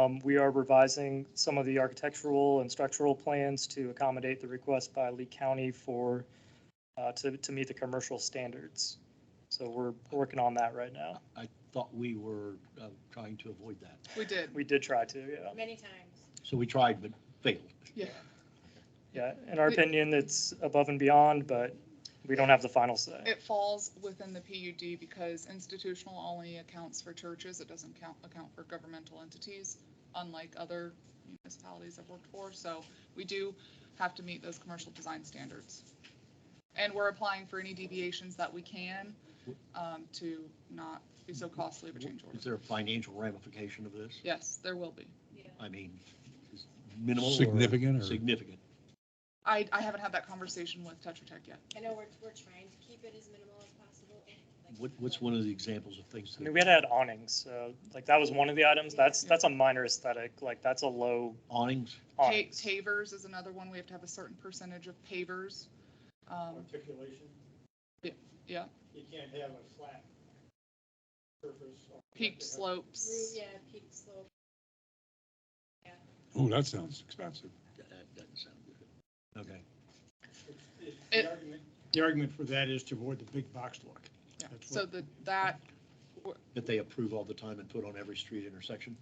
Um, We are revising some of the architectural and structural plans to accommodate the request by Lee County for, uh, to, to meet the commercial standards. So we're working on that right now. I thought we were uh, trying to avoid that. We did, We did try to, yeah. Many times. So we tried but failed. yeah. Yeah, in our opinion, it's above and beyond, but we don't have the final say. It falls within the PUD because institutional only accounts for churches. It doesn't count, account for governmental entities, unlike other municipalities I've worked for. So we do have to meet those commercial design standards. And we're applying for any deviations that we can um, to not be so costly of a change Is order. there a financial ramification of this? Yes, there will be. I mean, is minimal or? Significant or- Significant. I, I haven't had that conversation with Tetra Tech yet. I know we're, we're trying to keep it as minimal as possible. like- What, what's one of the examples of things I mean, that we had had awnings, so like that was one of the items. That's, that's a minor aesthetic, like that's a low awnings? Pa- awnings. Pavers is another one. We have to have a certain percentage of pavers. Um, articulation. Yeah, yeah. You can't have a flat surface. or- peaked Roof, slopes. Yeah, peak slope. Oh, that sounds expensive. That that doesn't sound good. Okay. It's- it's It- The argument- the argument for that is to avoid the big box look. Yeah. That's So what- that, that, That they approve all the time and put on every street intersection?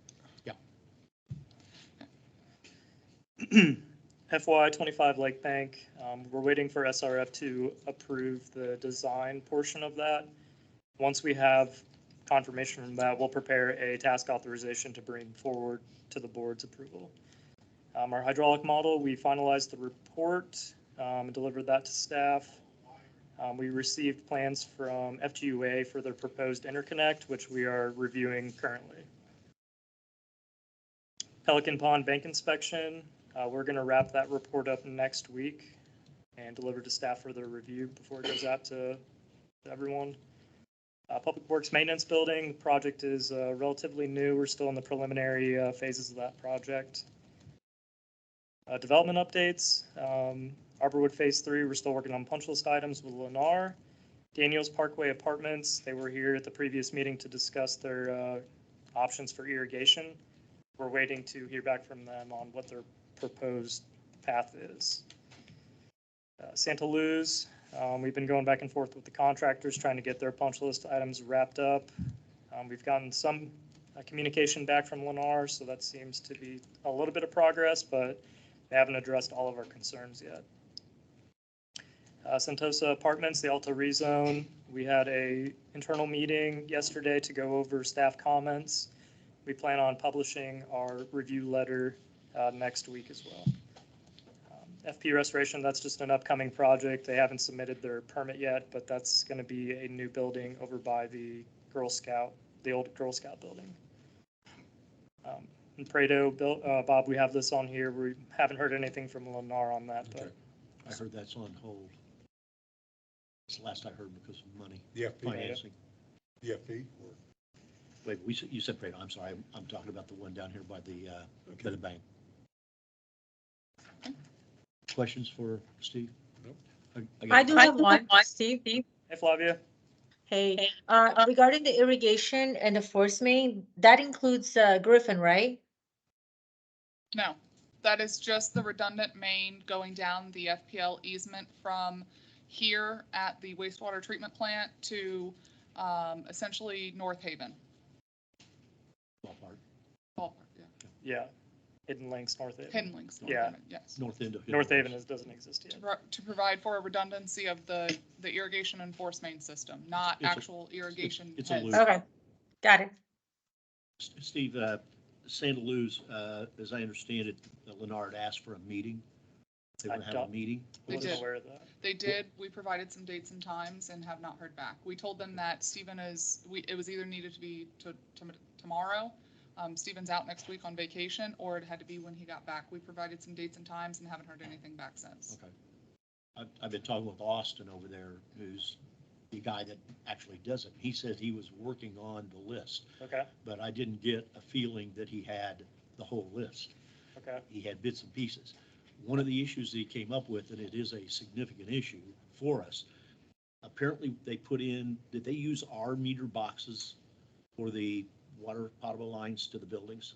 FY twenty-five Lake Bank, um, we're waiting for SRF to approve the design portion of that. Once we have confirmation from that, we'll prepare a task authorization to bring forward to the board's approval. Um, our hydraulic model, we finalized the report, um, and delivered that to staff. Um, we received plans from FGUA for their proposed interconnect, which we are reviewing currently. Pelican Pond Bank inspection, uh, We're going to wrap that report up next week and deliver to staff for their review before it goes out to to everyone. Uh, Public Works Maintenance Building, the project is uh, relatively new. We're still in the preliminary uh, phases of that project. Uh, Development updates, um, Arborwood Phase Three, we're still working on punch list items with Lennar. Daniels Parkway Apartments, they were here at the previous meeting to discuss their uh, options for irrigation. We're waiting to hear back from them on what their proposed path is. Uh, Santa Luz, um, we've been going back and forth with the contractors, trying to get their punch list items wrapped up. Um, We've gotten some uh, communication back from Lennar, so that seems to be a little bit of progress, but they haven't addressed all of our concerns yet. Uh, Sentosa Apartments, the Alta rezone, we had a internal meeting yesterday to go over staff comments. We plan on publishing our review letter uh, next week as well. Um, FP Restoration, that's just an upcoming project. They haven't submitted their permit yet, but that's going to be a new building over by the Girl Scout, the old Girl Scout building. Um, And Prado, Bill- uh, Bob, we have this on here. We haven't heard anything from Lennar on that, but Okay. I heard that's on hold. It's the last I heard because of money, The FP, financing. the FP? or- Wait, we, said- you said, Prado, I'm sorry, I'm, I'm talking about the one down here by the, uh, by the bank. Questions for Steve? Nope. got I do one. have one, Steve. hey, Flavia. Hey, uh, regarding the irrigation and the force main, that includes uh, Griffin, right? no, that is just the redundant main going down the FPL easement from here at the wastewater treatment plant to um, essentially North Haven. Ballpark, ballpark, yeah. Yeah, Hidden Links, North Haven. Hidden links. North Yeah. Haven, Yes. North end of. Hill North Haven House. is- doesn't exist To yet. pro- To provide for a redundancy of the, the irrigation and force main system, not It's a- actual irrigation it's a heads. loop. Okay, got it. S- Steve, uh, Santa Luz, uh, as I understand it, uh, Leonard asked for a meeting. They I want to have a don't- meeting. I They wasn't did. aware of that. They did. We provided some dates and times and have not heard back. We told them that Stephen is, we, it was either needed to be to, to- tomorrow. Um, Stephen's out next week on vacation, or it had to be when he got back. We provided some dates and times and haven't heard anything back since. Okay. I've, I've been talking with Austin over there, who's the guy that actually does it. He says he was working on the list, Okay, but I didn't get a feeling that he had the whole list. okay. he had bits and pieces. One of the issues that he came up with, and it is a significant issue for us, apparently they put in, did they use our meter boxes for the water potable lines to the buildings?